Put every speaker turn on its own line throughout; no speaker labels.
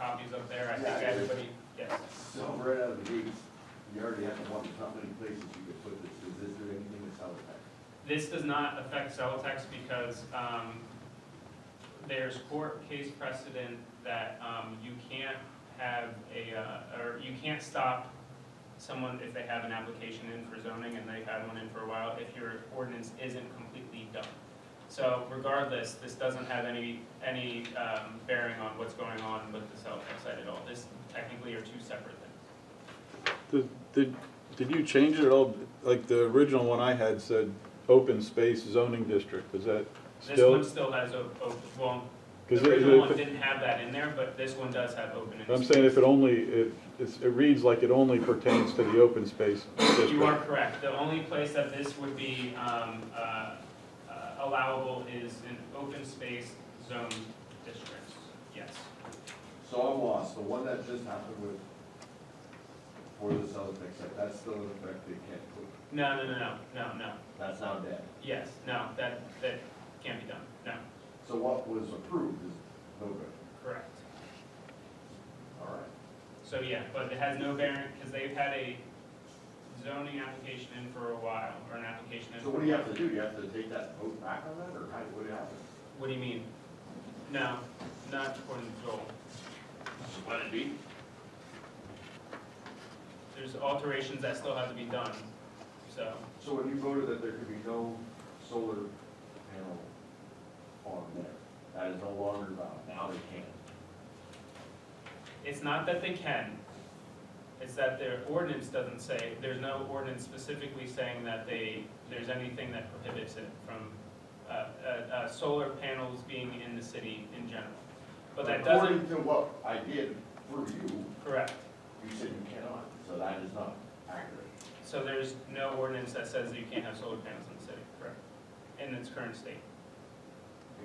up there, I
Yeah.
think everybody, yes.
So right out of the gate, you already have one, how many places you could put this, is this there anything that's out there?
This does not affect Celotex because um, there's court case precedent that um, you can't have a, uh, or you can't stop someone if they have an application in for zoning and they've had one in for a while if your ordinance isn't completely done. So regardless, this doesn't have any, any um, bearing on what's going on with the Celotex site at all. This technically are two separate things.
Did, did, did you change it at all? Like the original one I had said, open space zoning district, is that
This one
still?
still has a, a- well,
Because
The original one
if it-
didn't have that in there, but this one does have open and.
I'm saying if it only, it, it's, it reads like it only pertains to the open space district.
You are correct. The only place that this would be um, uh, uh, allowable is in open space zone districts, yes.
So I'm lost, the one that just happened with, for the Celtics, that- that's still in effect, they can't put,
No, no, no, no, no, no,
that's not dead.
yes, no, that, that can't be done, no,
So what was approved is no good,
correct.
all right.
So, yeah, but it has no bearing, because they've had a zoning application in for a while, or an application in.
So what do you have to do, you have to take that vote back on that, or how, what happens?
What do you mean? No, not according to Joel.
Let it be.
There's alterations that still have to be done, so.
So when you voted that there could be no solar panel on there, that is no longer valid, now they can.
It's not that they can, it's that their ordinance doesn't say, there's no ordinance specifically saying that they, there's anything that prohibits it from, uh, uh, uh, solar panels being in the city in general. But that doesn't,
According to what I did for you,
correct,
you said you cannot, so that is not accurate.
so there's no ordinance that says that you can't have solar panels in the city, correct? In its current state,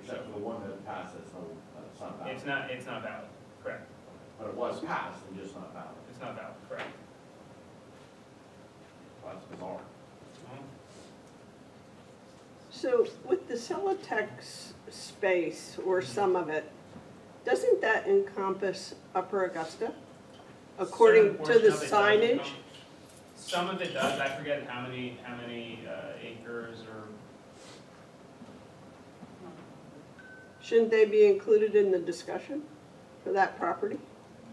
Except for the one that passed, that's no, that's not valid.
it's not, it's not valid, correct,
But it was passed and just not valid.
it's not valid, correct.
That's bizarre.
So with the Celotex space or some of it, doesn't that encompass Upper Augusta? According
Certain
to the
portion of it does
signage?
come- Some of it does, I forget how many, how many uh, acres or
Shouldn't they be included in the discussion for that property?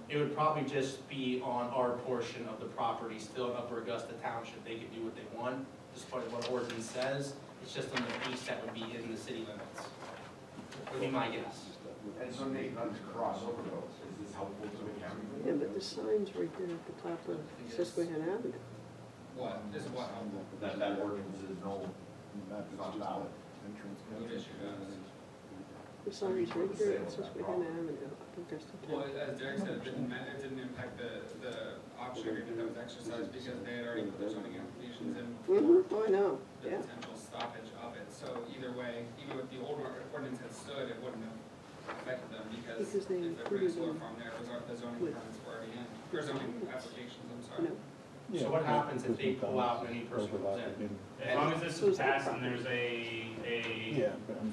It would probably just be on our portion of the property, still in Upper Augusta Township, they could do what they want, just part of what ordinance says, it's just on the piece that would be in the city limits. Would be my guess.
And so Nate, not to cross over those, is this helpful to the
Yeah,
county?
but the sign's right there at the top of Susquehanna Avenue.
What, this is what, um,
That that ordinance is no,
that's just
it's not valid.
entrance.
What is your guys'?
The sign's right there at Susquehanna Avenue, Upper Augusta
Well,
Town.
as Derek said, it didn't ma, it didn't impact the, the option agreement that was exercised because they had already put their zoning applications in for
Mm-hmm, I know,
the
yeah.
potential stoppage of it. So either way, even if the old or- ordinance had stood, it wouldn't have affected them because
Because
if
they
they put a solar
included
farm there, it was, al- the zoning
with-
permits were already in, or zoning applications, I'm
No.
sorry.
So what happens if they pull out and any person comes in?
As long as this is passed and there's a, a,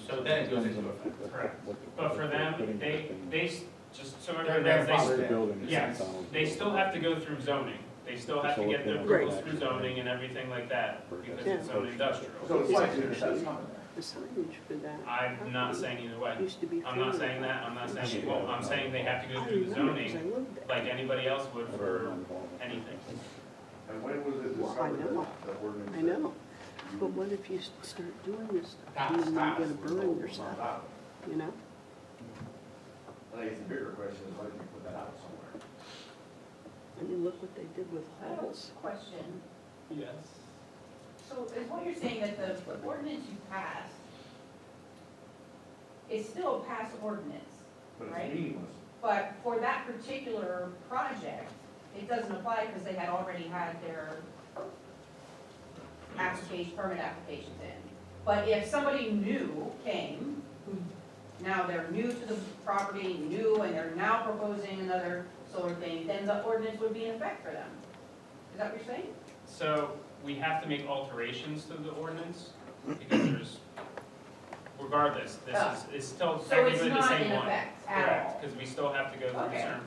So then it goes into effect.
correct. But for them, they, they, s- just so
Their
everyone knows, they, s-
grandfather did.
yes, they still have to go through zoning. They still have to get their approvals through zoning and everything like that, because it's zone
So
industrial.
it's like, it's not.
The signage for that.
I'm not saying either way.
Used to be.
I'm not saying that, I'm not saying she won't, I'm saying they have to go
I
through the
remember 'cause
zoning
I lived there.
like anybody else would for anything.
And when was it
Well, I
discovered
know.
that the ordinance?
I know. But what if you s- start doing this stuff and
That's
then you're
fast.
gonna burn yourself, you know?
I think it's a bigger question, is why did you put that out somewhere?
I mean, look what they did with
I have
Halls.
a question.
Yes.
So is what you're saying that the the ordinance you passed is still a past ordinance,
But
Right.
it's meaningless.
but for that particular project, it doesn't apply because they had already had their application, permit applications in. But if somebody new came, who now they're new to the property, new, and they're now proposing another solar thing, then the ordinance would be in effect for them. Is that what you're saying?
So we have to make alterations to the ordinance because there's, regardless, this is, it's still
So it's
technically the
not
same
in
one.
effect at all?
Correct, because we still have to go through
Okay.
certain